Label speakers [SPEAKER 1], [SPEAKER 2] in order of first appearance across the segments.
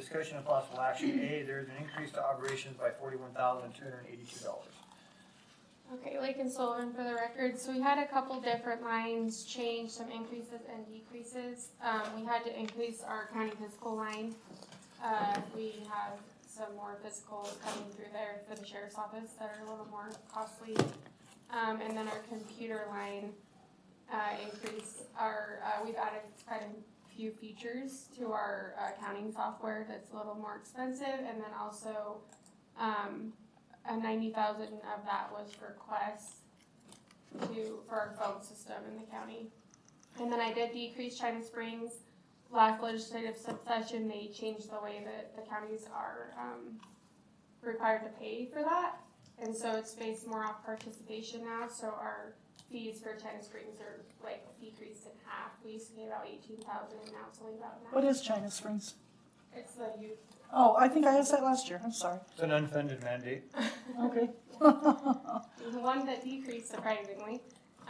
[SPEAKER 1] Discussion of possible action, A, there's an increase to operations by forty-one thousand two hundred and eighty-two dollars.
[SPEAKER 2] Okay, Lake and Sullivan for the record, so we had a couple different lines change, some increases and decreases. Um, we had to increase our county physical line. Uh, we have some more physicals coming through there for the sheriff's office that are a little more costly. Um, and then our computer line, uh, increase, our, uh, we've added quite a few features to our uh, accounting software that's a little more expensive, and then also, um, a ninety thousand of that was for Quest to, for our phone system in the county. And then I did decrease China Springs. Last legislative session, they changed the way that the counties are, um, required to pay for that. And so it's based more off participation now, so our fees for China Springs are like decreased in half. We used to pay about eighteen thousand and now it's only about
[SPEAKER 3] What
[SPEAKER 2] nine.
[SPEAKER 3] is China Springs?
[SPEAKER 2] It's the youth.
[SPEAKER 3] Oh, I think I asked that last year. I'm sorry.
[SPEAKER 1] It's an unfunded mandate.
[SPEAKER 3] Okay.
[SPEAKER 2] The one that decreased surprisingly.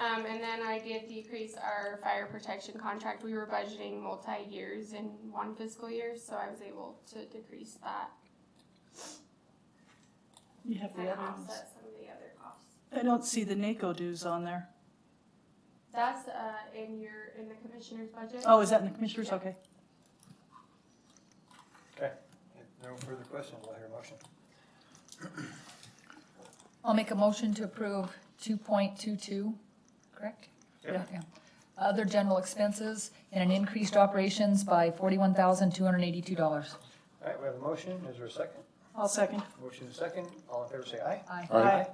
[SPEAKER 2] Um, and then I did decrease our fire protection contract. We were budgeting multi-years in one fiscal year, so I was able to decrease that
[SPEAKER 3] You have
[SPEAKER 2] and
[SPEAKER 3] the other ones.
[SPEAKER 2] offset some of the other costs.
[SPEAKER 3] I don't see the NACO dues on there.
[SPEAKER 2] That's, uh, in your, in the commissioner's budget.
[SPEAKER 3] Oh, is that in the commissioners? Okay.
[SPEAKER 1] If No further questions, I'll hear a motion.
[SPEAKER 4] I'll make a motion to approve two point two two, correct?
[SPEAKER 1] Yep.
[SPEAKER 4] Yeah. Other general expenses and an increased operations by forty-one thousand, two hundred and eighty-two dollars.
[SPEAKER 1] All right, we have a motion. Is there a second?
[SPEAKER 3] I'll second.
[SPEAKER 1] Motion is second. All in favor, say aye.
[SPEAKER 4] Aye.
[SPEAKER 3] Aye.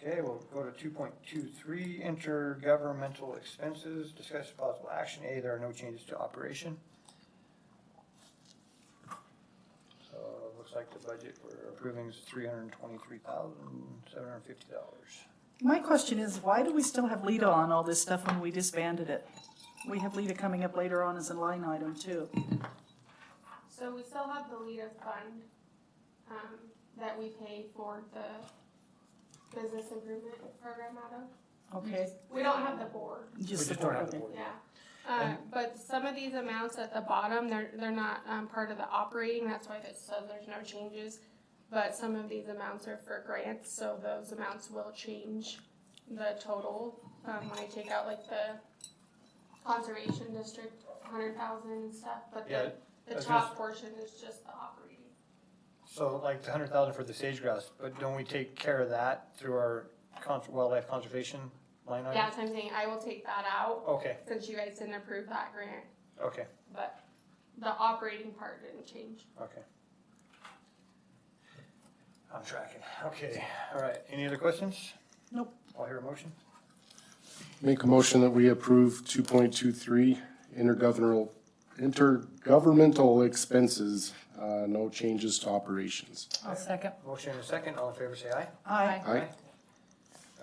[SPEAKER 1] Okay, we'll go to two point two three, intergovernmental expenses. Discuss possible action. A, there are no changes to operation. So it looks like the budget we're approving is three hundred and twenty-three thousand, seven hundred and fifty dollars.
[SPEAKER 3] My question is, why do we still have Lita on all this stuff when we disbanded it? We have Lita coming up later on as a line item too.
[SPEAKER 2] So we still have the LEDA fund, um, that we pay for the business improvement program out of.
[SPEAKER 3] Okay.
[SPEAKER 2] We don't have the board.
[SPEAKER 1] We just don't have the board.
[SPEAKER 2] Yeah, uh, but some of these amounts at the bottom, they're, they're not, um, part of the operating, that's why it says there's no changes. But some of these amounts are for grants, so those amounts will change the total, um, when I take out like the conservation district, hundred thousand and stuff, but
[SPEAKER 1] Yeah,
[SPEAKER 2] the,
[SPEAKER 1] I
[SPEAKER 2] the
[SPEAKER 1] was
[SPEAKER 2] top portion is just the operating.
[SPEAKER 1] So like the hundred thousand for the sage grouse, but don't we take care of that through our cons- wildlife conservation line item?
[SPEAKER 2] Yeah, so I'm saying I will take that out,
[SPEAKER 1] Okay,
[SPEAKER 2] since you guys didn't approve that grant,
[SPEAKER 1] okay,
[SPEAKER 2] but the operating part didn't change.
[SPEAKER 1] okay. I'm tracking. Okay, all right. Any other questions?
[SPEAKER 3] Nope.
[SPEAKER 1] I'll hear a motion.
[SPEAKER 5] Make a motion that we approve two point two three intergovernmental, intergovernmental expenses, uh, no changes to operations.
[SPEAKER 4] I'll second.
[SPEAKER 1] Motion and a second. All in favor, say aye.
[SPEAKER 3] Aye.
[SPEAKER 5] Aye.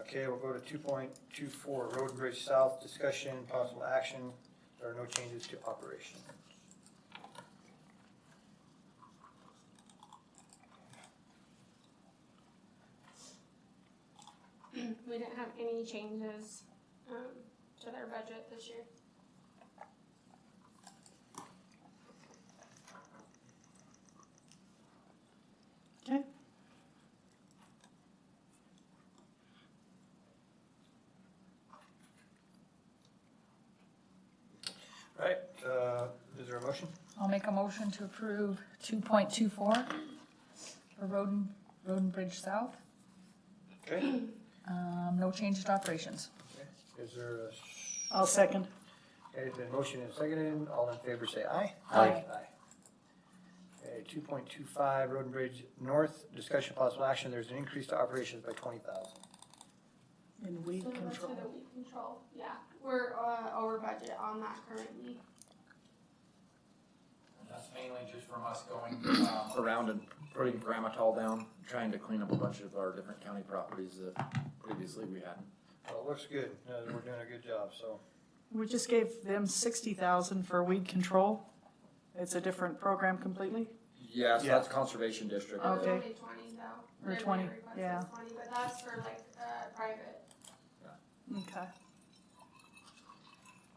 [SPEAKER 1] Okay, we'll go to two point two four, Road and Bridge South, discussion, possible action. There are no changes to operation.
[SPEAKER 2] We didn't have any changes, um, to their budget this year.
[SPEAKER 3] Okay.
[SPEAKER 1] All Right, uh, is there a motion?
[SPEAKER 4] I'll make a motion to approve two point two four for Roden, Roden Bridge South.
[SPEAKER 1] Okay,
[SPEAKER 4] Um, no changes to operations.
[SPEAKER 1] is there a?
[SPEAKER 3] I'll second.
[SPEAKER 1] Okay, it's been motioned and seconded. All in favor, say aye.
[SPEAKER 4] Aye.
[SPEAKER 1] Okay, two point two five, Road and Bridge North, discussion possible action. There's an increase to operations by twenty thousand.
[SPEAKER 3] And weed
[SPEAKER 2] So that's
[SPEAKER 3] control.
[SPEAKER 2] for the weed control, yeah. We're, uh, over budget on that currently.
[SPEAKER 6] And That's mainly just from us going um, around and putting Grammatol down, trying to clean up a bunch of our different county properties that previously we had.
[SPEAKER 1] Well, it looks good. Uh, We're doing a good job, so.
[SPEAKER 3] We just gave them sixty thousand for weed control. It's a different program completely.
[SPEAKER 6] Yes,
[SPEAKER 1] Yeah.
[SPEAKER 6] that's Conservation District.
[SPEAKER 2] It was
[SPEAKER 3] Okay.
[SPEAKER 2] only twenty though.
[SPEAKER 3] Or
[SPEAKER 2] Their
[SPEAKER 3] 20,
[SPEAKER 2] grant request
[SPEAKER 3] yeah.
[SPEAKER 2] was Twenty, but that's for like, uh, private.
[SPEAKER 3] Okay.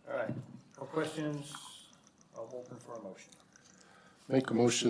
[SPEAKER 1] All right, no questions? I'll open for a motion.
[SPEAKER 5] Make a motion